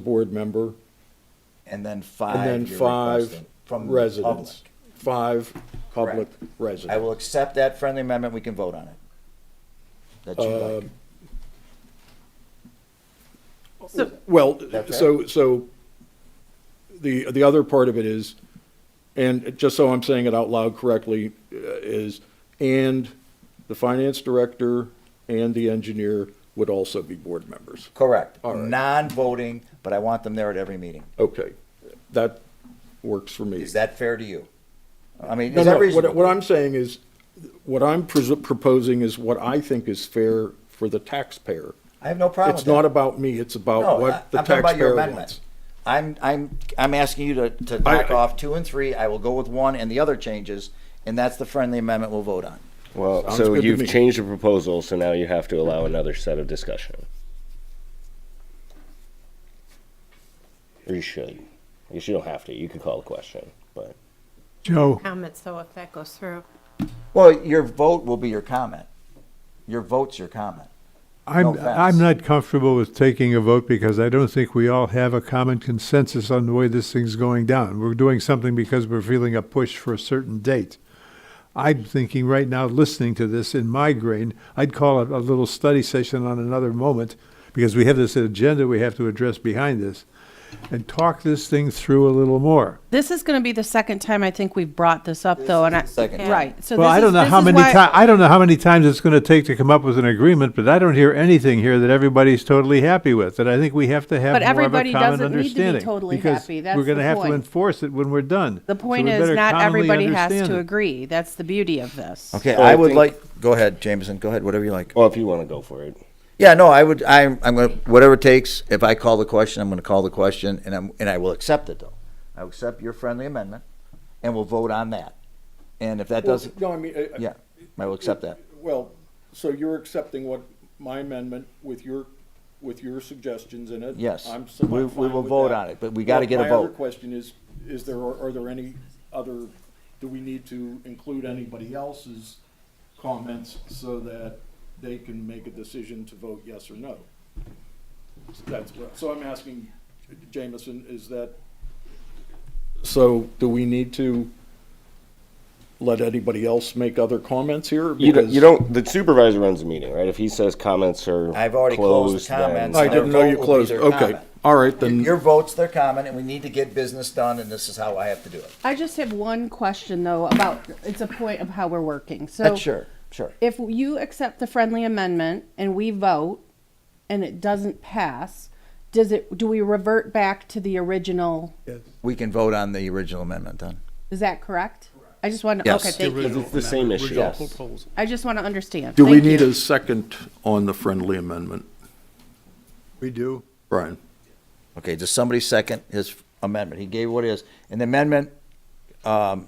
board member, And then five. and then you're five requesting from the residents. public. Five public Correct. I residents. will accept that friendly amendment, we can vote on it. That you like. Um, So, Well, That's so, so the, the other part of it is, and just so I'm saying it out loud correctly, uh, is, and the finance director and the engineer would also be board members. Correct. All right. Non-voting, but I want them there at every meeting. Okay, that works for me. Is that fair to you? I mean, No, is no, that what, what reasonable? I'm saying is, what I'm pres- proposing is what I think is fair for the taxpayer. I have no problem with It's not that. about me, it's No, about I- what the I'm talking about taxpayer your amendment. wants. I'm, I'm, I'm asking you to, to I- knock off two and three. I will go with one and the other changes, and that's the friendly amendment we'll vote on. Well, Sounds so good to me. you've changed the proposal, so now you have to allow another set of discussion. Or you should. I guess you don't have to. You could call the question, but Joe, comments, though, if that goes through. Well, your vote will be your comment. Your vote's your comment. I'm, offense. I'm not comfortable with taking a vote because I don't think we all have a common consensus on the way this thing's going down. We're doing something because we're feeling a push for a certain date. I'm thinking right now, listening to this in my grain, I'd call it a little study session on another moment because we have this agenda we have to address behind this and talk this thing through a little more. This is going to be the second time I think we've brought this up, though, and I, second time. right. So Well, this I don't is- know this how is many why- ti- I don't know how many times it's going to take to come up with an agreement, but I don't hear anything here that everybody's totally happy with. And I think we have to have But more everybody of a common doesn't need to be understanding totally because happy. That's we're going the to have to point. enforce it when we're done. So The point we is, better not commonly everybody has understand to it. agree. That's the beauty of this. Okay, Well, I I would think- like, go ahead, Jameson, go ahead, whatever you like. well, if you want to go for it, Yeah, no, I would, I'm, I'm gonna, whatever it takes, if I call the question, I'm gonna call the question, and I'm, and I will accept it though. I will accept your friendly amendment, and we'll vote on that. And if that doesn't, No, I mean, I- I- yeah, I will accept that. Well, so you're accepting what, my amendment with your, with your suggestions in it? Yes. I'm so- I'm We- we fine will with vote that. on it, but we gotta Now, get a My other vote. question is, is there, are there any other, do we need to include anybody else's comments so that they can make a decision to vote yes or no? That's, what- so I'm asking, Jameson, is that? So do we need to let anybody else make other comments here? you don't. Because- You don't. The supervisor runs the meeting, right? If he says comments are I've already closed the then- comments. I Their didn't know vote you will be closed, their okay, comment. all right, then. Your vote's their comment, and we need to get business done, and this is how I have to do it. I just have one question, though, about it's a point of how we're working. So, That's sure, sure. if you accept the friendly amendment and we vote and it doesn't pass, does it? Do we revert back to the original? We can vote on the original amendment then. Is that correct? I just want to. Yes. Okay, thank Because you. it's the same issue. I just want to understand. Do we Thank need you. a second on the friendly amendment, We do. Brian? Okay, does somebody second his amendment? He gave what is, an amendment, um, I'm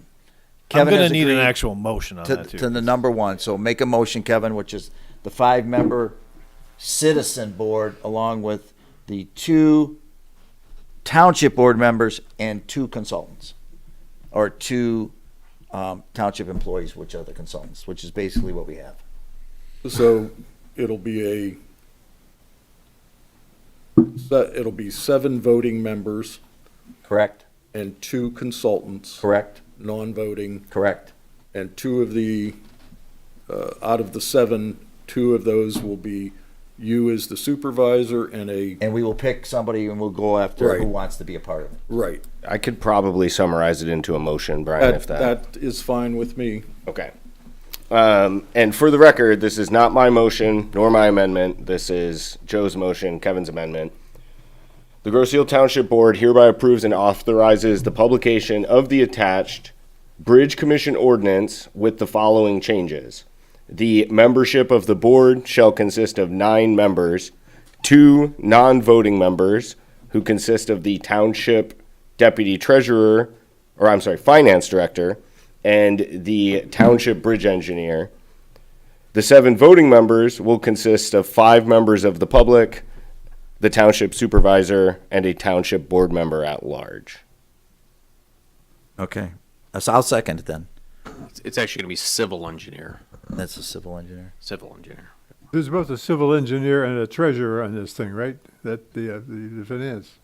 Kevin gonna has need an agreed actual motion on to, that too. to the number one. So make a motion, Kevin, which is the five-member citizen board along with the two township board members and two consultants. Or two, um, township employees, which are the consultants, which is basically what we have. So it'll be a, so it'll be seven voting members Correct? and two consultants. Correct? Non-voting, Correct. and two of the, uh, out of the seven, two of those will be you as the supervisor and a, And we will pick somebody and we'll go after who Right. wants to be a part of it. right. I could probably summarize it into a motion, Brian, That, if that is fine with me. Okay. Um, and for the record, this is not my motion nor my amendment. This is Joe's motion, Kevin's amendment. The Grosseal Township Board hereby approves and authorizes the publication of the attached Bridge Commission ordinance with the following changes. The membership of the board shall consist of nine members, two non-voting members who consist of the township deputy treasurer, or I'm sorry, finance director, and the township bridge engineer. The seven voting members will consist of five members of the public, the township supervisor, and a township board member at large. Okay. So I'll second it then. It's actually going to be civil engineer. That's a civil engineer. Civil engineer. There's both a civil engineer and a treasurer on this thing, right? That the, uh, the, the finance.